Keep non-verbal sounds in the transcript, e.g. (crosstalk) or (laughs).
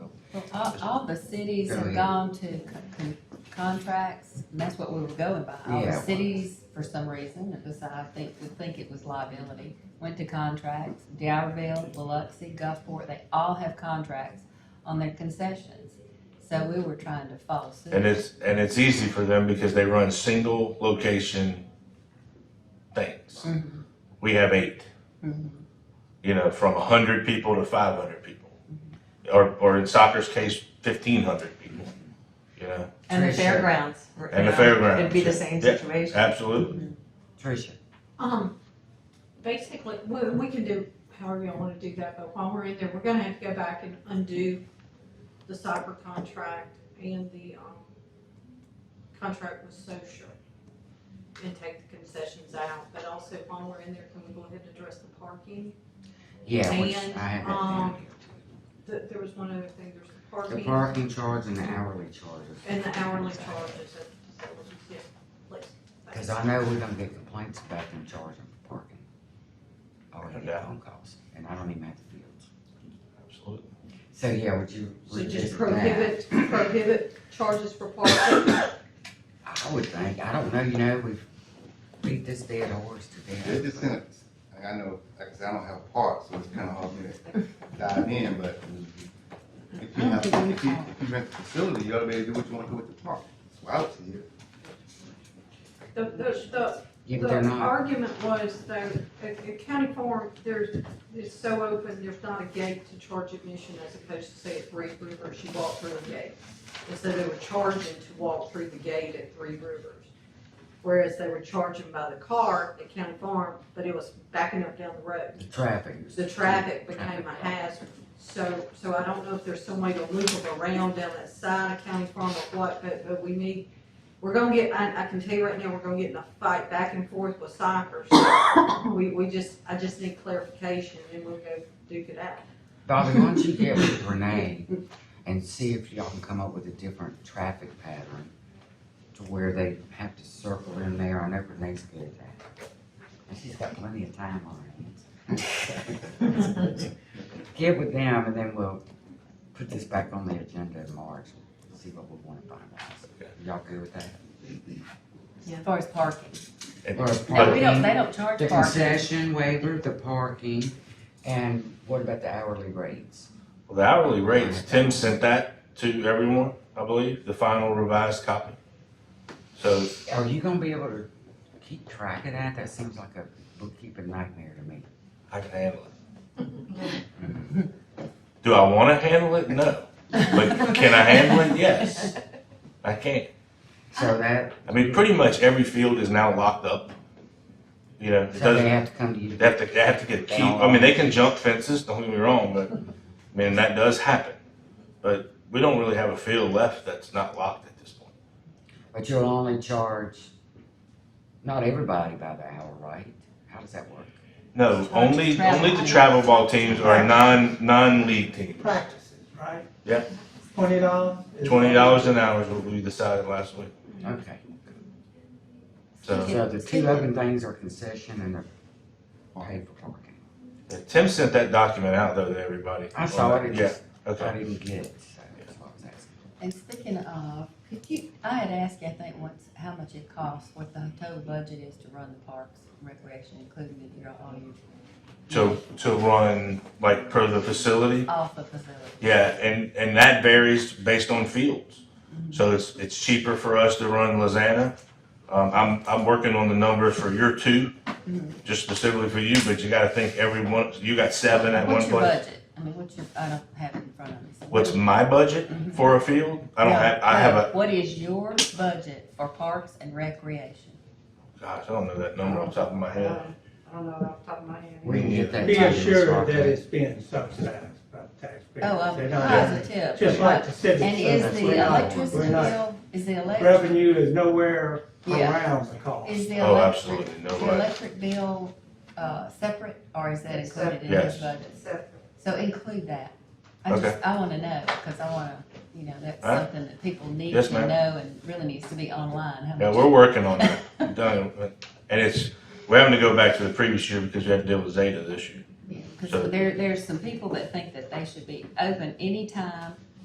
Well, all, all the cities have gone to con- con- contracts, and that's what we were going by. All the Yeah. cities, for some reason, it was, I think, we think it was liability, went to contracts. Dowerville, Biloxi, Gulfport, they all have contracts on their concessions. So we were trying to follow suit. And it's, and it's easy for them because they run single location things. Mhm. We have eight, Mhm. you know, from hundred people to five hundred people. Or, or in soccer's case, fifteen hundred people, you know, And the Tricia. fairgrounds. were- and the yeah, fairgrounds. It'd be the same Yeah, situation. Absolutely. Tricia, Um, basically, we, we can do however y'all wanna do that, but while we're in there, we're gonna have to go back and undo the cyber contract and the, um, contract with social and take the concessions out, but also while we're in there, can we go ahead and address the parking? yeah, which I have And, that down um, here. Th there was one other thing, there's the The parking parking charge and the hourly charges. and the hourly charges at facilities, yeah, please. Cause I know we're gonna get complaints about them charging for parking. Or No they get doubt. phone calls, and I don't even have the fields. Absolutely. So, yeah, would you So just revisit that? prohibit, prohibit charges for parking. I would think, I don't know, you know, we've beat this dead horse to death. It's just in a, like I know, like I said, I don't have a part, so it's kinda hard for me to dive in, but if you have, if you, if you rent the facility, you ought to be able to do what you wanna do with the park. That's what I would say. The, the, the, Yeah, but they're The not, argument was though, at, at county farm, there's, it's so open, there's not a gate to charge admission as opposed to say at Three Rivers, you walk through the gate. And so they were charging to walk through the gate at Three Rivers. Whereas they were charging by the car at county farm, but it was backing up down the road. the traffic. is- The traffic became a hazard. So, so I don't know if there's some way to loop them around down that side of County Farm or what, but, but we need, we're gonna get, I, I can tell you right now, we're gonna get in a fight back and forth with Cypress. We, we just, I just need clarification and we'll go duke it out. Bobby, why don't you get with Renee and see if y'all can come up with a different traffic pattern to where they have to circle in there. I know Renee's good at that. And she's got plenty of time on her hands. (laughs) Get with them and then we'll put this back on the agenda in March and see what we want to finalize. Y'all good with that? As far as parking. And- Or No, we don't, parking. they don't charge The parking. concession waiver, the parking, and what about the hourly rates? Well, The hourly rates, Tim sent that to everyone, I believe, the final revised copy. So Are you gonna be able to keep track of that? That seems like a bookkeeping nightmare to me. I can handle it. Do I wanna handle it? No. But can I handle it? Yes. I can. So that, I mean, pretty much every field is now locked up. You know, it so they doesn't, have to come to you. they have to, they have to get a key. I mean, they can jump fences, don't get me wrong, but, I mean, that does happen. But we don't really have a field left that's not locked at this point. But you'll only charge, not everybody by the hour, right? How does that work? No, only, Travel. only the travel ball teams are non, non-league teams. practices, right? Yeah. Twenty dollars? Twenty dollars an hour is what we decided last week, Okay, so. so the two open things are concession and the paid for parking. Yeah, Tim sent that document out though to everybody. I saw it, it Yeah, just, I okay. didn't get it, so that's what I was asking. And speaking of, could you, I had asked you, I think, once, how much it costs, what the total budget is to run the parks and recreation, including the, your, all your, To, to run like per the facility. all the facilities. Yeah, and, and that varies based on fields. So it's, it's cheaper for us to run Lozana. Um, I'm, I'm working on the numbers for your two, just specifically for you, but you gotta think every one, you got seven at one What's your place. budget? I mean, what's your, I don't have it in front of me. so What's what- my budget for a field? I don't No, have, I have no. a, What is your budget for parks and recreation? gosh, I don't know that number off the top of my head. Um, I don't know off the top of my head. We can get that. Be to you, Ms. assured Barclay. that it's being subsidized by the taxpayers. Oh, They're I'm not- positive. Just like the civic And is center. We're the not- electricity we're not- bill, is the electric, Revenue is nowhere Yeah. around the cost. is the Oh, electric, absolutely, no the way. electric bill, uh, separate, or is that It's included in separate. his budget? So, So include that. I just, I wanna know, cause I wanna, you know, that's All right. something that people need Yes, to ma'am. know and really needs to be online, how Yeah, much. we're working on that. (laughs) We've done, it. and it's, we're having to go back to the previous year because we had to deal with Zeta this year. Yeah, Cause So- there, there's some people that think that they should be open anytime,